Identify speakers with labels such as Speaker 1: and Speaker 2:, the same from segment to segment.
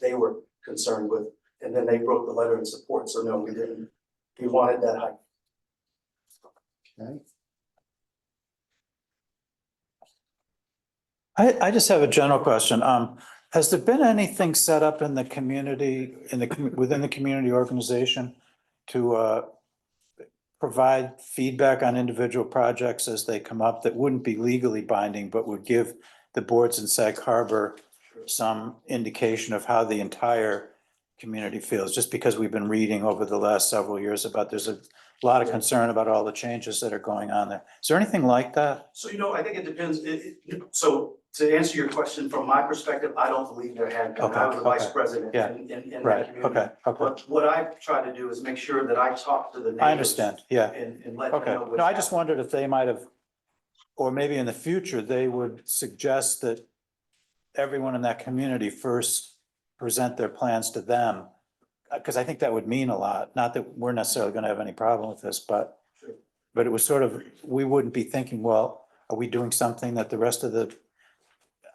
Speaker 1: they were concerned with. And then they wrote the letter in support, so no, we didn't. We wanted that height.
Speaker 2: Okay.
Speaker 3: I, I just have a general question. Um, has there been anything set up in the community, in the, commu- within the community organization to, uh, provide feedback on individual projects as they come up that wouldn't be legally binding, but would give the boards in Sag Harbor some indication of how the entire community feels, just because we've been reading over the last several years about, there's a lot of concern about all the changes that are going on there. Is there anything like that?
Speaker 1: So you know, I think it depends, it, it, so to answer your question, from my perspective, I don't believe there had been, I was
Speaker 3: Okay,
Speaker 1: the vice
Speaker 3: okay.
Speaker 1: president
Speaker 3: Yeah.
Speaker 1: in, in, in that
Speaker 3: Right,
Speaker 1: community.
Speaker 3: okay, okay.
Speaker 1: But what I try to do is make sure that I talk to the neighbors.
Speaker 3: I understand, yeah.
Speaker 1: And, and let them
Speaker 3: Okay,
Speaker 1: know what's.
Speaker 3: no, I just
Speaker 1: happening.
Speaker 3: wondered if they might have, or maybe in the future, they would suggest that everyone in that community first present their plans to them. Because I think that would mean a lot, not that we're necessarily gonna have any problem with this, but,
Speaker 1: Sure.
Speaker 3: but it was sort of, we wouldn't be thinking, well, are we doing something that the rest of the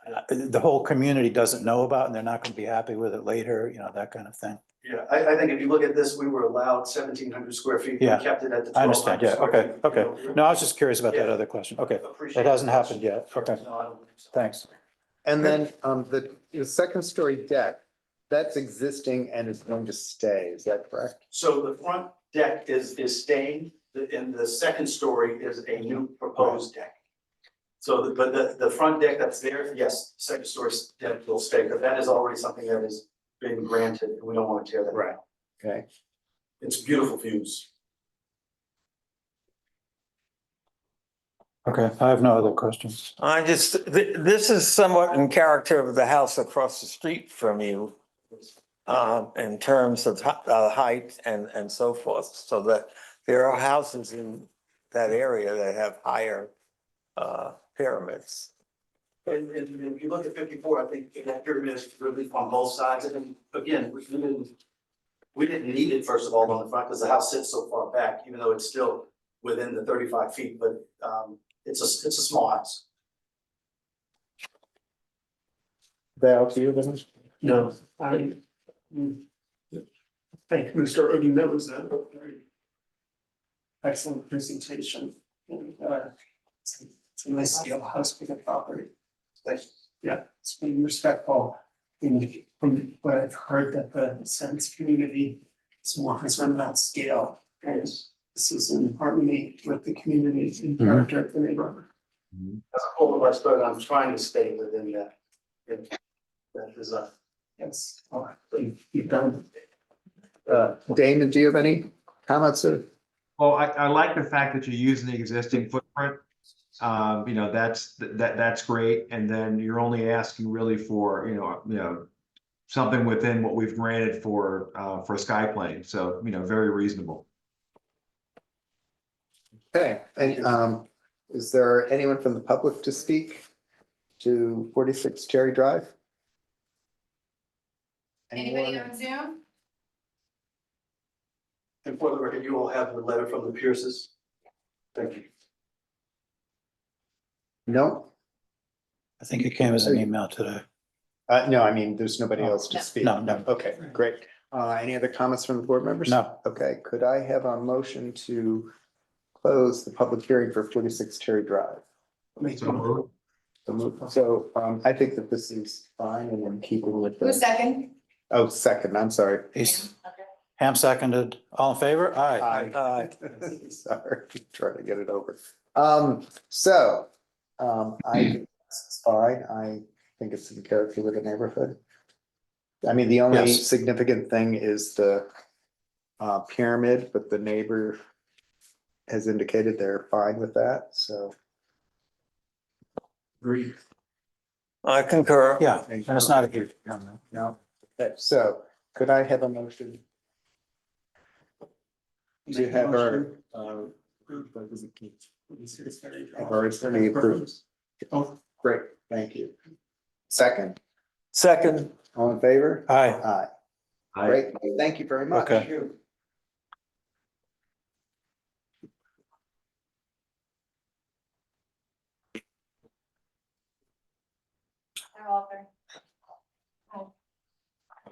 Speaker 3: uh, the whole community doesn't know about and they're not gonna be happy with it later, you know, that kind of thing.
Speaker 1: Yeah, I, I think if you look at this, we were allowed seventeen hundred square feet. We
Speaker 3: Yeah.
Speaker 1: Kept it at the
Speaker 3: I
Speaker 1: twelve
Speaker 3: understand,
Speaker 1: hundred
Speaker 3: yeah,
Speaker 1: square
Speaker 3: okay,
Speaker 1: feet.
Speaker 3: okay.
Speaker 1: You know,
Speaker 3: No, I was just curious about that
Speaker 1: Yeah.
Speaker 3: other question. Okay,
Speaker 1: Appreciate
Speaker 3: it hasn't
Speaker 1: the
Speaker 3: happened
Speaker 1: question.
Speaker 3: yet. Okay,
Speaker 1: No, I don't think so.
Speaker 3: thanks.
Speaker 2: And then um the the second story deck, that's existing and is going to stay, is that correct?
Speaker 1: So the front deck is, is staying, the- and the second story is a new proposed deck. So, the- but the, the front deck that's there, yes, second story deck will stay, but that is already something that has been granted, and we don't want to tear that down.
Speaker 2: Okay,
Speaker 1: It's beautiful views.
Speaker 3: Okay, I have no other questions.
Speaker 4: I just, th- this is somewhat in character of the house across the street from you. Um, in terms of hi- uh, height and, and so forth, so that there are houses in that area that have higher, uh, pyramids.
Speaker 1: And, and if you look at fifty-four, I think that pyramid is really on both sides, and then, again, we didn't. We didn't need it, first of all, on the front, because the house sits so far back, even though it's still within the thirty-five feet, but, um, it's a, it's a small house.
Speaker 2: Val, to you, then?
Speaker 5: No, I. mm. Thank you, Mr. Odom, that was a very excellent presentation. And, uh, It's it's a nice scale house with a property.
Speaker 1: Thank
Speaker 5: Yeah, it's being respectful. And from what I've heard that the sense community is more concerned about scale. And this is in harmony with the community and character of the neighborhood.
Speaker 1: As a whole, West Berlin, I'm trying to stay within that, in that design.
Speaker 5: Yes, all right, you've- you've done
Speaker 2: Uh, Damon, do you have any comments or?
Speaker 6: Well, I, I like the fact that you're using the existing footprint. Um, you know, that's, that, that's great. And then you're only asking really for, you know, you know, something within what we've granted for, uh, for Skyplane. So, you know, very reasonable.
Speaker 2: Okay, and um, is there anyone from the public to speak to forty-six Cherry Drive?
Speaker 7: Anybody
Speaker 2: Anyone?
Speaker 7: on Zoom?
Speaker 1: And for the record, you all have the letter from the Pierces. Thank you.
Speaker 2: No,
Speaker 3: I think it came as an email today.
Speaker 2: uh, no, I mean, there's nobody else to
Speaker 7: No.
Speaker 2: speak.
Speaker 3: Oh, No, no.
Speaker 2: Okay, great. Uh, any other comments from the board members?
Speaker 3: No,
Speaker 2: Okay, could I have a motion to close the public hearing for forty-six Cherry Drive?
Speaker 6: So moved.
Speaker 2: So move- So um, I think that this is fine and in keeping with
Speaker 7: Who's
Speaker 2: the,
Speaker 7: second?
Speaker 2: oh, second, I'm sorry.
Speaker 3: he's,
Speaker 7: Okay.
Speaker 3: Ham seconded, all in favor? Aye.
Speaker 2: Aye. Sorry, trying to get it over. Um, so, um, I, think it's all right, I think it's in character with the neighborhood. I mean, the only
Speaker 3: Yes.
Speaker 2: significant thing is the uh, pyramid, but the neighbor has indicated they're fine with that, so.
Speaker 1: Agreed.
Speaker 4: I concur.
Speaker 3: Yeah, and it's not a huge.
Speaker 2: No, Okay, so could I have a motion? Do you have our, uh, have our attorney approved?
Speaker 5: Oh.
Speaker 2: Great, thank you. Second,
Speaker 4: Second,
Speaker 2: all in favor?
Speaker 3: Aye,
Speaker 2: Aye,
Speaker 6: I-
Speaker 2: great, thank you very much.
Speaker 3: Okay.
Speaker 7: They're all there.